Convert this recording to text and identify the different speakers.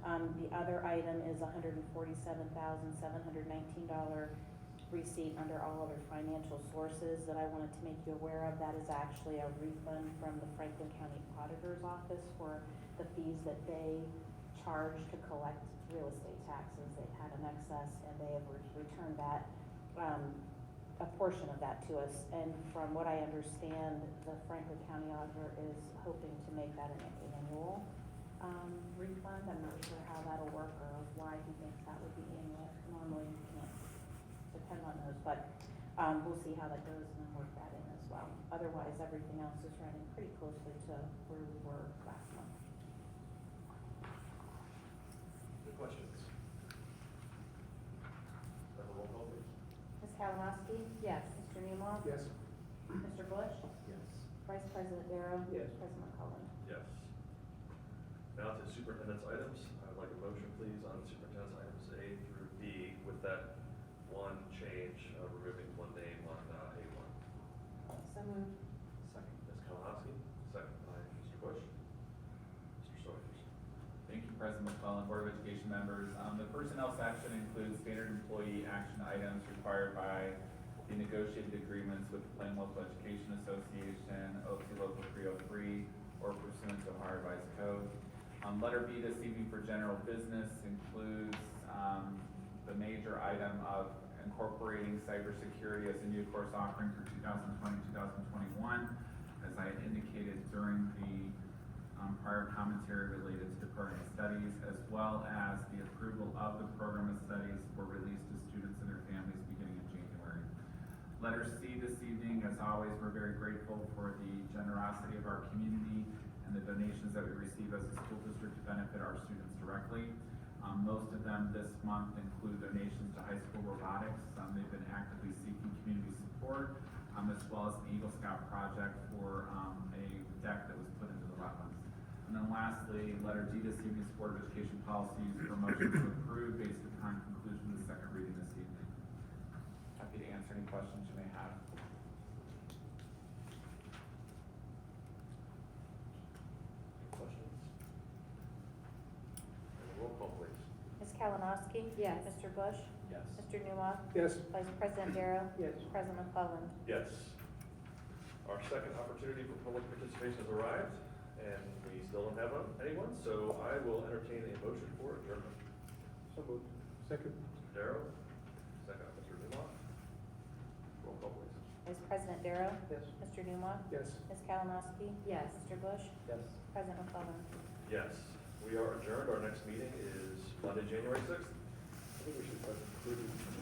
Speaker 1: Um, the other item is hundred and forty-seven thousand, seven hundred nineteen dollar receipt under all other financial sources that I wanted to make you aware of. That is actually a refund from the Franklin County Auditor's Office for the fees that they charge to collect real estate taxes. They've had an excess and they have re- returned that, um, a portion of that to us. And from what I understand, the Franklin County Auditor is hoping to make that an annual, um, refund. I'm not sure how that'll work or why he thinks that would be annual. Normally, you can't depend on those, but, um, we'll see how that goes and then work that in as well. Otherwise, everything else is running pretty closely to where we were last month.
Speaker 2: Any questions? Have a roll call, please.
Speaker 1: Ms. Kalanowski? Yes. Mr. Newmaw?
Speaker 3: Yes.
Speaker 1: Mr. Bush?
Speaker 2: Yes.
Speaker 1: Vice President Darrow?
Speaker 3: Yes.
Speaker 1: President Cullen?
Speaker 2: Yes. Now to superintendent's items. I'd like a motion, please, on superintendent's items A through B with that one change, uh, removing one name on uh, A one.
Speaker 1: So moved.
Speaker 2: Second. Ms. Kalanowski, second by Mr. Bush. Mr. Saunders.
Speaker 4: Thank you, President McClellan, Board of Education members. Um, the personnel section includes standard employee action items required by the negotiated agreements with the Plain Local Education Association, OC Local three oh three, or pursuant to Ohio Revised Code. Um, letter B this evening for general business includes, um, the major item of incorporating cybersecurity as a new course offering for 2020-2021. As I had indicated during the um, prior commentary related to the program of studies, as well as the approval of the program of studies for release to students and their families beginning in January. Letter C this evening, as always, we're very grateful for the generosity of our community and the donations that we receive as a school district to benefit our students directly. Um, most of them this month include donations to high school robotics, um, they've been actively seeking community support, um, as well as an Eagle Scout project for, um, a deck that was put into the wetlands. And then lastly, letter D this evening, is Board of Education policies for motion to approve based upon conclusion of the second reading this evening. Happy to answer any questions you may have.
Speaker 2: Any questions? Have a roll call, please.
Speaker 1: Ms. Kalanowski?
Speaker 5: Yes.
Speaker 1: Mr. Bush?
Speaker 2: Yes.
Speaker 1: Mr. Newmaw?
Speaker 3: Yes.
Speaker 1: Vice President Darrow?
Speaker 3: Yes.
Speaker 1: President McClellan?
Speaker 2: Yes. Our second opportunity for public participation has arrived, and we still don't have um, anyone, so I will entertain a motion for adjournment.
Speaker 3: So moved. Second?
Speaker 2: Mr. Darrow, second, Mr. Newmaw. Roll call, please.
Speaker 1: Vice President Darrow?
Speaker 3: Yes.
Speaker 1: Mr. Newmaw?
Speaker 3: Yes.
Speaker 1: Ms. Kalanowski?
Speaker 5: Yes.
Speaker 1: Mr. Bush?
Speaker 3: Yes.
Speaker 1: President McClellan?
Speaker 2: Yes, we are adjourned. Our next meeting is Monday, January sixth.
Speaker 3: I think we should put including